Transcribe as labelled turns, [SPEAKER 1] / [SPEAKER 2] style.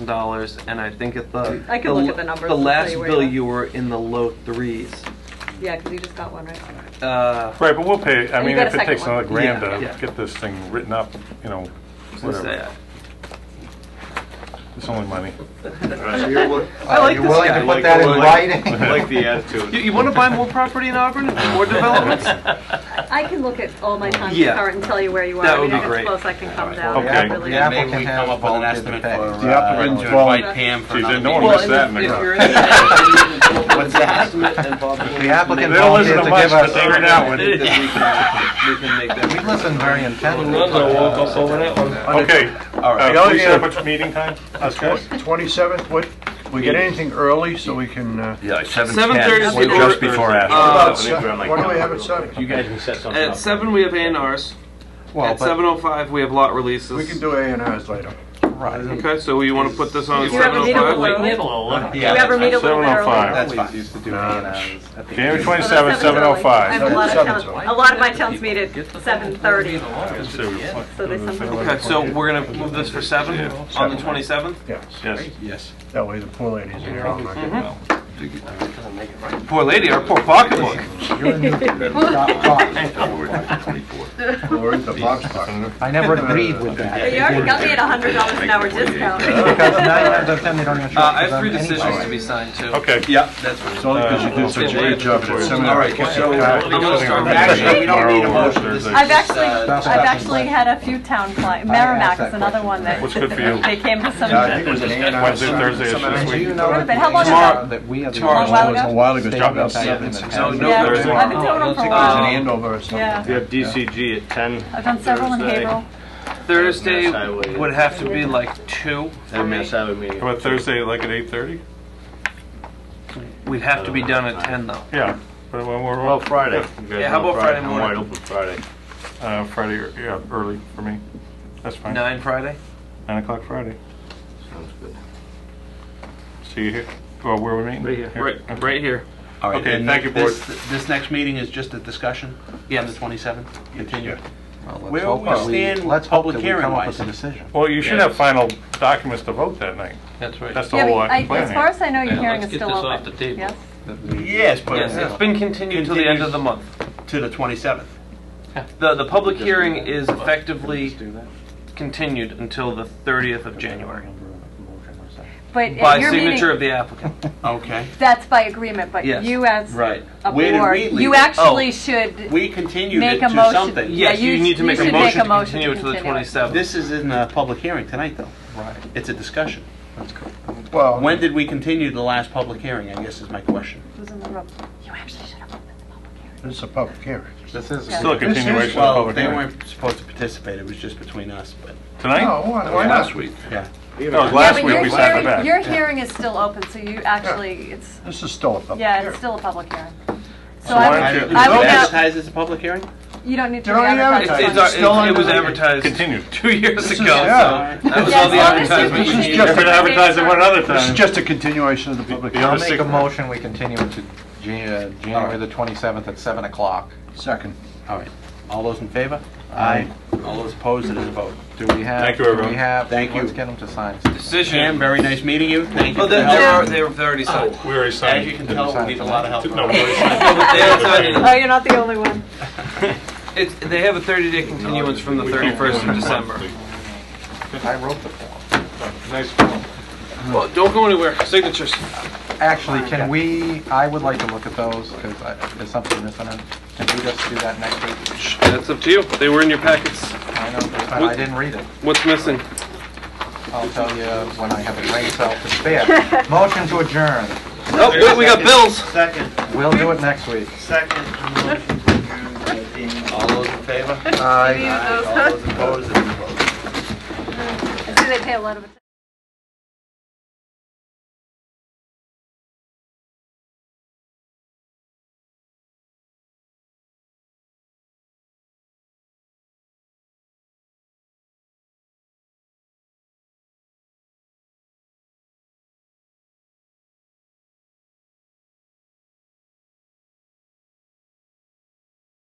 [SPEAKER 1] dollars, and I think at the
[SPEAKER 2] I can
[SPEAKER 1] the
[SPEAKER 2] look
[SPEAKER 1] l-
[SPEAKER 2] at the numbers
[SPEAKER 1] The
[SPEAKER 2] and tell
[SPEAKER 1] last
[SPEAKER 2] you where
[SPEAKER 1] bill
[SPEAKER 2] you are.
[SPEAKER 1] you were in the low threes.
[SPEAKER 2] Yeah, because you just got one, right?
[SPEAKER 1] Uh,
[SPEAKER 3] Right, but we'll pay, I
[SPEAKER 2] And you
[SPEAKER 3] mean,
[SPEAKER 2] got
[SPEAKER 3] if
[SPEAKER 2] a
[SPEAKER 3] it
[SPEAKER 2] second
[SPEAKER 3] takes another
[SPEAKER 2] one.
[SPEAKER 3] grand
[SPEAKER 1] Yeah,
[SPEAKER 3] to
[SPEAKER 1] yeah.
[SPEAKER 3] get this thing written up, you know,
[SPEAKER 1] what's
[SPEAKER 3] whatever.
[SPEAKER 1] that?
[SPEAKER 3] It's only money.
[SPEAKER 4] So you're wi-
[SPEAKER 1] I like
[SPEAKER 4] you're
[SPEAKER 1] this
[SPEAKER 4] willing
[SPEAKER 1] guy.
[SPEAKER 4] to
[SPEAKER 1] Like
[SPEAKER 4] put that in
[SPEAKER 3] willing-
[SPEAKER 4] writing?
[SPEAKER 5] I like the attitude.
[SPEAKER 1] You, you want to buy more property in Auburn? More developments?
[SPEAKER 2] I can look at all my times
[SPEAKER 1] Yeah.
[SPEAKER 2] current and tell you where you are.
[SPEAKER 1] That
[SPEAKER 2] I
[SPEAKER 1] would be
[SPEAKER 2] mean, if it's
[SPEAKER 1] great.
[SPEAKER 2] Close, I can come down.
[SPEAKER 3] Okay.
[SPEAKER 2] I
[SPEAKER 3] Yeah,
[SPEAKER 2] really-
[SPEAKER 4] The app-
[SPEAKER 6] Maybe we come up with an estimate for,
[SPEAKER 4] The applicant
[SPEAKER 6] uh,
[SPEAKER 4] to
[SPEAKER 6] to invite
[SPEAKER 2] invite-
[SPEAKER 6] Pam for
[SPEAKER 3] Geez, I
[SPEAKER 6] another
[SPEAKER 3] know
[SPEAKER 6] meeting.
[SPEAKER 3] I'm
[SPEAKER 1] Well,
[SPEAKER 3] missed that in
[SPEAKER 1] if- if
[SPEAKER 3] the
[SPEAKER 1] you're
[SPEAKER 3] crowd.
[SPEAKER 1] interested in-
[SPEAKER 6] What's that?
[SPEAKER 1] and Bob
[SPEAKER 4] If
[SPEAKER 1] Wilson-
[SPEAKER 4] the applicant
[SPEAKER 3] They don't listen
[SPEAKER 4] volunteered
[SPEAKER 3] to
[SPEAKER 4] to
[SPEAKER 3] much,
[SPEAKER 4] give
[SPEAKER 3] but they were not
[SPEAKER 4] us,
[SPEAKER 3] with
[SPEAKER 1] Then
[SPEAKER 3] it.
[SPEAKER 1] we can- we can make that.
[SPEAKER 4] we listened very intently.
[SPEAKER 3] Okay,
[SPEAKER 6] All right.
[SPEAKER 3] uh, please set up a meeting time, us guys.
[SPEAKER 7] 27th, what, we get anything early so we can, uh,
[SPEAKER 6] Yeah, seven
[SPEAKER 1] Seven thirty is
[SPEAKER 6] ten,
[SPEAKER 1] the
[SPEAKER 6] just
[SPEAKER 1] order.
[SPEAKER 6] before
[SPEAKER 1] Uh,
[SPEAKER 6] after.
[SPEAKER 7] why do we have it 7?
[SPEAKER 8] You guys can set something up.
[SPEAKER 1] At seven, we have A and Rs.
[SPEAKER 4] Well,
[SPEAKER 1] At
[SPEAKER 4] but,
[SPEAKER 1] seven oh five, we have lot releases.
[SPEAKER 7] We can do A and Rs later.
[SPEAKER 4] right,
[SPEAKER 1] Okay, so you want to put this on at
[SPEAKER 2] Do you have
[SPEAKER 1] seven
[SPEAKER 2] a
[SPEAKER 1] oh
[SPEAKER 2] meeting
[SPEAKER 1] five?
[SPEAKER 2] with- Do
[SPEAKER 6] Yeah,
[SPEAKER 2] you ever
[SPEAKER 6] that's
[SPEAKER 2] meet a little bit early?
[SPEAKER 3] 7:05.
[SPEAKER 4] that's
[SPEAKER 6] Always
[SPEAKER 4] fine. Uh, Used to do
[SPEAKER 3] January
[SPEAKER 2] Oh, that's
[SPEAKER 3] 27th,
[SPEAKER 2] seven early. I have a
[SPEAKER 3] 7:05.
[SPEAKER 2] lot of
[SPEAKER 7] Seven's early.
[SPEAKER 2] towns, a lot of my towns meet at 7:30. So they
[SPEAKER 1] Okay,
[SPEAKER 2] sometimes.
[SPEAKER 1] so we're gonna move this for seven on the twenty seventh.
[SPEAKER 7] Yes,
[SPEAKER 3] Yes,
[SPEAKER 6] Yes.
[SPEAKER 7] that way the poor ladies in here. Oh, aren't like-
[SPEAKER 1] Poor lady, our poor pocketbook.
[SPEAKER 2] Mm-hmm.
[SPEAKER 7] Or the box box.
[SPEAKER 4] I never agreed with that.
[SPEAKER 2] But you already got me at a hundred dollars an hour discount.
[SPEAKER 4] Because nine out of ten, they don't even show
[SPEAKER 1] Uh,
[SPEAKER 4] up
[SPEAKER 1] I
[SPEAKER 4] for
[SPEAKER 1] have
[SPEAKER 4] them
[SPEAKER 1] three decisions to
[SPEAKER 4] anyway.
[SPEAKER 1] be signed too.
[SPEAKER 3] okay.
[SPEAKER 6] Yeah, that's what.
[SPEAKER 7] It's only 'cause you did such a great job at that seminar.
[SPEAKER 6] All right,
[SPEAKER 1] uh,
[SPEAKER 6] so.
[SPEAKER 3] Actually, we don't need a motion.
[SPEAKER 2] I've
[SPEAKER 1] Uh,
[SPEAKER 2] actually,
[SPEAKER 4] That's
[SPEAKER 2] I've
[SPEAKER 4] what
[SPEAKER 2] actually had a few town clients, Merrimack is another one that,
[SPEAKER 3] What's good for you?
[SPEAKER 2] they came to
[SPEAKER 7] Yeah, Uh, I
[SPEAKER 2] some,
[SPEAKER 7] think it was an A and R.
[SPEAKER 3] Wednesday, Thursday is
[SPEAKER 4] And
[SPEAKER 3] this
[SPEAKER 4] do you
[SPEAKER 3] week.
[SPEAKER 4] know
[SPEAKER 2] Wait a
[SPEAKER 4] that
[SPEAKER 2] minute, how long
[SPEAKER 4] the-
[SPEAKER 1] ago?
[SPEAKER 4] That we are the
[SPEAKER 1] Tomorrow.
[SPEAKER 4] only
[SPEAKER 2] A while
[SPEAKER 4] ones
[SPEAKER 2] ago?
[SPEAKER 7] A while ago,
[SPEAKER 4] state
[SPEAKER 3] Job
[SPEAKER 4] of
[SPEAKER 3] outside.
[SPEAKER 4] Michigan that
[SPEAKER 1] No, Uh,
[SPEAKER 4] has
[SPEAKER 1] no,
[SPEAKER 4] it.
[SPEAKER 2] yeah,
[SPEAKER 3] Thursday.
[SPEAKER 2] I've been doing them for a
[SPEAKER 7] There's an
[SPEAKER 2] while.
[SPEAKER 7] Andover or something.
[SPEAKER 2] Yeah.
[SPEAKER 8] We have DCG at ten.
[SPEAKER 2] I've done several in
[SPEAKER 8] Thursday.
[SPEAKER 2] Haverhill.
[SPEAKER 1] Thursday
[SPEAKER 8] Mass Highway.
[SPEAKER 1] would have to be like two for
[SPEAKER 8] And
[SPEAKER 1] me.
[SPEAKER 8] Mass Highway meeting.
[SPEAKER 3] How about Thursday, like at 8:30?
[SPEAKER 1] We'd have to be done at ten though.
[SPEAKER 3] Yeah. But when we're
[SPEAKER 8] Well,
[SPEAKER 3] off
[SPEAKER 8] Friday. You guys
[SPEAKER 1] Yeah, how
[SPEAKER 8] know
[SPEAKER 1] about Friday
[SPEAKER 8] I'm
[SPEAKER 1] morning?
[SPEAKER 8] wide open Friday.
[SPEAKER 3] uh, Friday, or- yeah, early for me. That's fine.
[SPEAKER 1] Nine Friday.
[SPEAKER 3] 9 o'clock Friday.
[SPEAKER 8] Sounds good.
[SPEAKER 3] See you here. Well, where we meeting?
[SPEAKER 8] Right here.
[SPEAKER 1] Right, right here.
[SPEAKER 6] All right,
[SPEAKER 3] Okay,
[SPEAKER 6] then
[SPEAKER 3] thank you,
[SPEAKER 6] this- This next meeting is just a discussion? On the
[SPEAKER 1] Yes.
[SPEAKER 6] 27th? Continue.
[SPEAKER 4] Well, let's
[SPEAKER 6] Where
[SPEAKER 4] hope
[SPEAKER 6] we
[SPEAKER 4] that
[SPEAKER 6] stand
[SPEAKER 4] let's hope
[SPEAKER 6] public
[SPEAKER 4] that we come up
[SPEAKER 6] hearing-wise.
[SPEAKER 4] with a decision.
[SPEAKER 3] Well, you should have final documents to vote that night.
[SPEAKER 1] That's
[SPEAKER 3] That's the
[SPEAKER 2] Yeah,
[SPEAKER 3] whole
[SPEAKER 2] but I-
[SPEAKER 3] uh, plan
[SPEAKER 2] as far
[SPEAKER 3] here.
[SPEAKER 2] as I know, your
[SPEAKER 1] Yeah,
[SPEAKER 2] hearing
[SPEAKER 1] let's
[SPEAKER 2] is
[SPEAKER 1] get
[SPEAKER 2] still
[SPEAKER 1] this
[SPEAKER 2] open.
[SPEAKER 1] off the table.
[SPEAKER 2] Yes?
[SPEAKER 4] that we-
[SPEAKER 6] Yes,
[SPEAKER 1] Yes, it's
[SPEAKER 6] but
[SPEAKER 1] been continued till the end of the month.
[SPEAKER 6] to the 27th.
[SPEAKER 1] The, the public hearing is effectively continued until the thirtieth of January
[SPEAKER 2] But
[SPEAKER 1] by
[SPEAKER 2] at your
[SPEAKER 1] signature of
[SPEAKER 2] meeting,
[SPEAKER 1] the applicant.
[SPEAKER 6] Okay.
[SPEAKER 2] that's by agreement, but
[SPEAKER 1] Yes.
[SPEAKER 2] you as
[SPEAKER 6] Right.
[SPEAKER 2] a
[SPEAKER 6] Where did
[SPEAKER 2] board,
[SPEAKER 6] we leave
[SPEAKER 2] you
[SPEAKER 6] it?
[SPEAKER 2] actually
[SPEAKER 1] Oh.
[SPEAKER 2] should,
[SPEAKER 6] We continued it
[SPEAKER 2] Make a
[SPEAKER 6] to
[SPEAKER 2] motion.
[SPEAKER 6] something.
[SPEAKER 2] Yeah,
[SPEAKER 1] Yes,
[SPEAKER 2] you
[SPEAKER 1] you need to
[SPEAKER 2] you
[SPEAKER 1] make a
[SPEAKER 2] should make
[SPEAKER 1] motion
[SPEAKER 2] a
[SPEAKER 1] to
[SPEAKER 2] motion
[SPEAKER 1] continue it
[SPEAKER 2] to
[SPEAKER 1] to the
[SPEAKER 2] continue it.
[SPEAKER 1] twenty-seventh.
[SPEAKER 6] This is in a public hearing tonight, though.
[SPEAKER 4] Right,
[SPEAKER 6] It's a discussion.
[SPEAKER 4] that's correct.
[SPEAKER 7] Well,
[SPEAKER 6] When did we continue the last public hearing, I guess is my question.
[SPEAKER 2] who's in the room? You actually should have opened the public hearing.
[SPEAKER 7] this is a public hearing.
[SPEAKER 4] This is.
[SPEAKER 3] Still a
[SPEAKER 7] This is-
[SPEAKER 3] continuation of the
[SPEAKER 6] Well,
[SPEAKER 3] public
[SPEAKER 6] they
[SPEAKER 3] hearing.
[SPEAKER 6] weren't supposed to participate, it was just between us, but,
[SPEAKER 7] No,
[SPEAKER 3] Tonight?
[SPEAKER 7] why why not?
[SPEAKER 4] week.
[SPEAKER 6] yeah.
[SPEAKER 3] That was last
[SPEAKER 2] Yeah, but
[SPEAKER 3] week
[SPEAKER 2] your
[SPEAKER 3] we sat in the
[SPEAKER 2] hearing-
[SPEAKER 3] back.
[SPEAKER 2] Your hearing is still open, so you actually, it's,
[SPEAKER 7] This is still a public
[SPEAKER 2] yeah, it's
[SPEAKER 7] hearing.
[SPEAKER 2] still a public hearing. So
[SPEAKER 3] why
[SPEAKER 2] I
[SPEAKER 3] don't
[SPEAKER 2] would,
[SPEAKER 3] you-
[SPEAKER 2] I would
[SPEAKER 6] Advertise
[SPEAKER 2] now,
[SPEAKER 6] as a public hearing?
[SPEAKER 2] you don't need to
[SPEAKER 7] You don't need to
[SPEAKER 2] re-advertise.
[SPEAKER 1] It's,
[SPEAKER 7] advertise.
[SPEAKER 2] it.
[SPEAKER 1] it's, our- it's- it was advertised
[SPEAKER 3] Continue.
[SPEAKER 1] two years ago.
[SPEAKER 7] Yeah.
[SPEAKER 1] so Oh. That was all the
[SPEAKER 2] Yeah, as long as you
[SPEAKER 1] advertisement we
[SPEAKER 2] continue
[SPEAKER 1] needed.
[SPEAKER 3] You have been advertising one other
[SPEAKER 7] This is
[SPEAKER 3] time.
[SPEAKER 7] just a continuation of the
[SPEAKER 3] Beyond
[SPEAKER 7] public hearing.
[SPEAKER 4] I'll make a
[SPEAKER 3] Secret.
[SPEAKER 4] motion, we continue it to Jan- uh, January the 27th at 7 o'clock.
[SPEAKER 7] Second.
[SPEAKER 6] All right, all those in favor?
[SPEAKER 4] Aye.
[SPEAKER 6] All those opposed, it is a vote.
[SPEAKER 4] Do we have?
[SPEAKER 3] Thank you,
[SPEAKER 4] Do
[SPEAKER 3] everyone.
[SPEAKER 4] we have?
[SPEAKER 6] Thank you.
[SPEAKER 4] Let's get them to sign.
[SPEAKER 6] Jim,
[SPEAKER 1] Decision.
[SPEAKER 6] very nice meeting you, thank you.
[SPEAKER 1] Oh,
[SPEAKER 6] for the
[SPEAKER 1] they're, they're,
[SPEAKER 6] help.
[SPEAKER 1] they're they're already signed.
[SPEAKER 3] We already
[SPEAKER 6] As
[SPEAKER 3] signed.
[SPEAKER 6] you can tell, we need a lot of help.
[SPEAKER 3] No, we already signed.
[SPEAKER 1] No, but they haven't signed it.
[SPEAKER 2] Oh, you're not the only one.
[SPEAKER 1] It's, they have a 30-day continuance from the 31st of December.
[SPEAKER 4] I wrote the form.
[SPEAKER 3] Nice one.
[SPEAKER 1] Well, don't go anywhere. Signatures.
[SPEAKER 4] Actually, can we, I would like to look at those because there's something missing. in. Can we just do that next week?
[SPEAKER 1] That's up to you. They were in your packets.
[SPEAKER 4] I know, but I didn't read it.
[SPEAKER 1] What's missing?
[SPEAKER 4] I'll tell you when I have a brain cell to spare. Motion to adjourn.
[SPEAKER 1] Oh, wait, we got bills.
[SPEAKER 6] Second,
[SPEAKER 4] We'll do it next week.
[SPEAKER 6] second. All those in favor?
[SPEAKER 4] Aye.
[SPEAKER 6] All those opposed, it is a vote.
[SPEAKER 2] I see they pay a lot of attention.